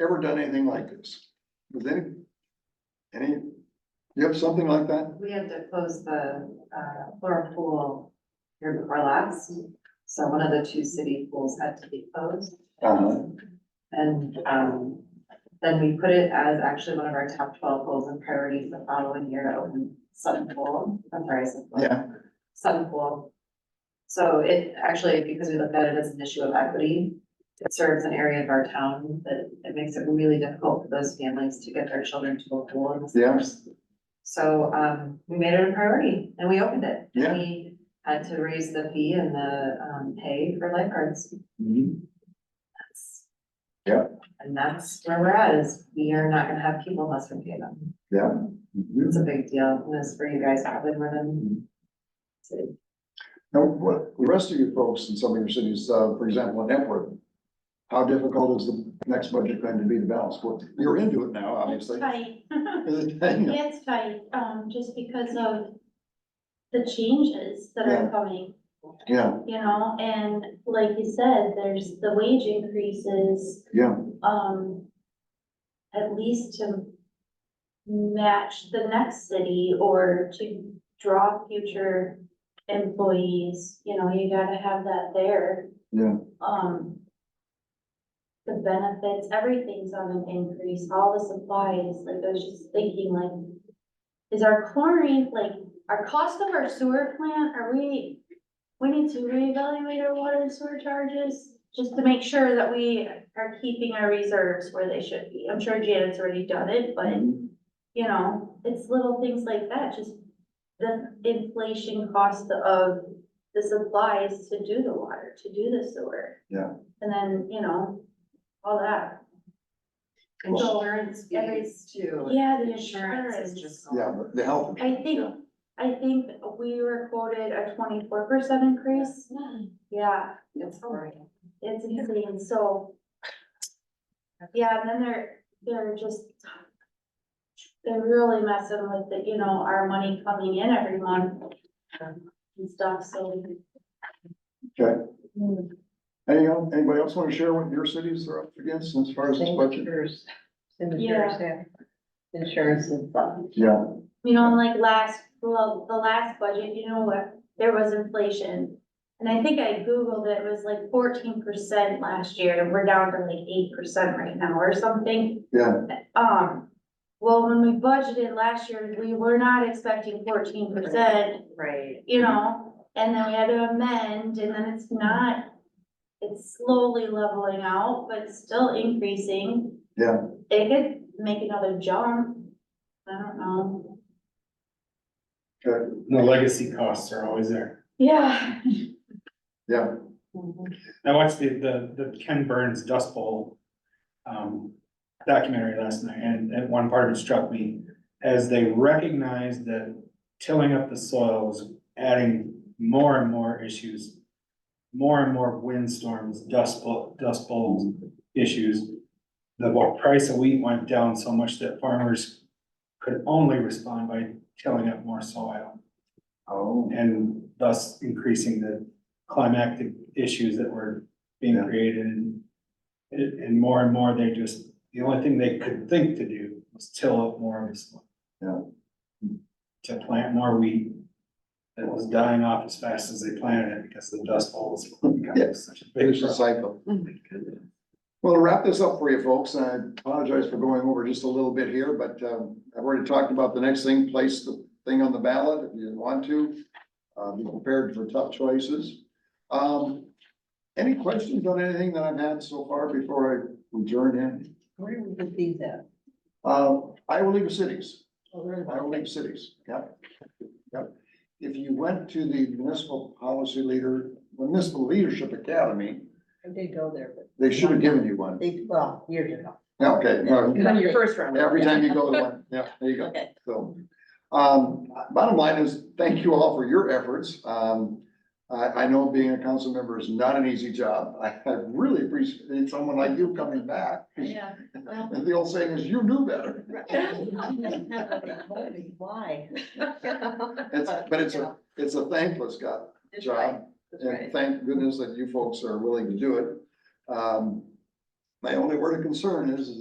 ever done anything like this? Does any, any, you have something like that? We had to close the uh, floor pool here before last, so one of the two city pools had to be closed. Uh-huh. And um, then we put it as actually one of our top twelve goals and priorities the following year to open Sutton Pool, I'm sorry, Sutton Pool. Yeah. Sutton Pool. So it actually, because we looked at it as an issue of equity, it serves an area of our town that it makes it really difficult for those families to get their children to a pool in the summer. So um, we made it a priority and we opened it. Yeah. We had to raise the fee and the um, pay for lifeguards. Mhm. That's- Yeah. And that's where we're at is we are not gonna have people unless we pay them. Yeah. Mhm. It's a big deal. And it's for you guys probably more Mm-hmm. than. Now, what, the rest of you folks in some of your cities, uh, for example, in Epworth, how difficult is the next budget going to be to balance? Well, you're into it now, It's obviously. tight, Is it- hang on. it's tight, um, just because of the changes that Yeah. are coming, Yeah, you know, and like you said, there's the wage increases, yeah, um, at least to match the next city or to draw future employees, you know, you gotta have that there. yeah, um, the benefits, everything's on an increase, all the supplies, like I was just thinking like, is our chlorine, like, our cost of our sewer plant, are we, we need to reevaluate our water and sewer charges just to make sure that we are keeping our reserves where they should be. I'm sure Janet's already done it, but, Mhm. you know, it's little things like that, just the inflation cost of the supplies to do the water, to do the sewer. Yeah. And then, you know, all that. Insurance Every- fees too. Yeah, the Insurance is just. going yeah, but the health. I think, yeah. I think we were quoted a twenty-four percent increase. Yeah, It's horrible. it's insane, so. Yeah, and then they're, they're just. They're really messing with the, you know, our money coming in every month. And stuff, so. Mm-hmm. Any, anybody else want to share what your cities are up against as far as this budget? Signatures, Yeah. signatures, yeah. Insurance and uh, fun. Yeah, You know, and like last, well, the last budget, you know what, there was inflation. And I think I Googled it, it was like fourteen percent last year, and we're down to like eight percent right now or something. yeah, Um, well, when we budgeted last year, we were not expecting fourteen percent, Right. you know? And then we had to amend, and then it's not, it's slowly leveling out, but still increasing. yeah. It could make another jump, I don't know. Okay, The legacy costs are always there. Yeah. yeah, Mm-hmm. I watched the, the, the Ken Burns Dust Bowl um, documentary last night, and, and one part of it struck me as they recognized that tilling up the soil was adding more and more issues, more and more windstorms, dust bowl, dust bowls issues. The wa- price of wheat went down so much that farmers could only respond by tilling up more soil oh, and thus increasing the climactic issues that were being Yeah. created and and and more and more, they just, the only thing they could think to do was till up more of this. land. Yeah. To plant more wheat that was dying off as fast as they planted it because the dust bowl was Yeah. becoming such a big vicious problem. cycle. Oh my goodness. Well, to wrap this up for you folks, I apologize for going over just a little bit here, but um, I've already talked about the next thing, place the thing on the ballot if you want to. Uh, Be prepared for tough choices. Um, Any questions on anything that I've had so far before I adjourn in? Where do we see that? Uh, Iowa League of Cities. Oh, there's I will one. leave cities, yep. Yep. If you went to the municipal policy leader, municipal leadership academy, I did go there, but they should have given you one. they, well, years ago. Okay, well, It was on your first round. every time you go to one, yeah, there you go. So, um, bottom line is, thank you all for your efforts. Um, I, I know being a council member is not an easy job. I, I really appreciate someone like you coming back. Yeah. And the old saying is, you knew better. Why? It's, but it's a, it's a thankless job. That's right, job. that's And right. thank goodness that you folks are willing to do it. Um, My only word of concern is, is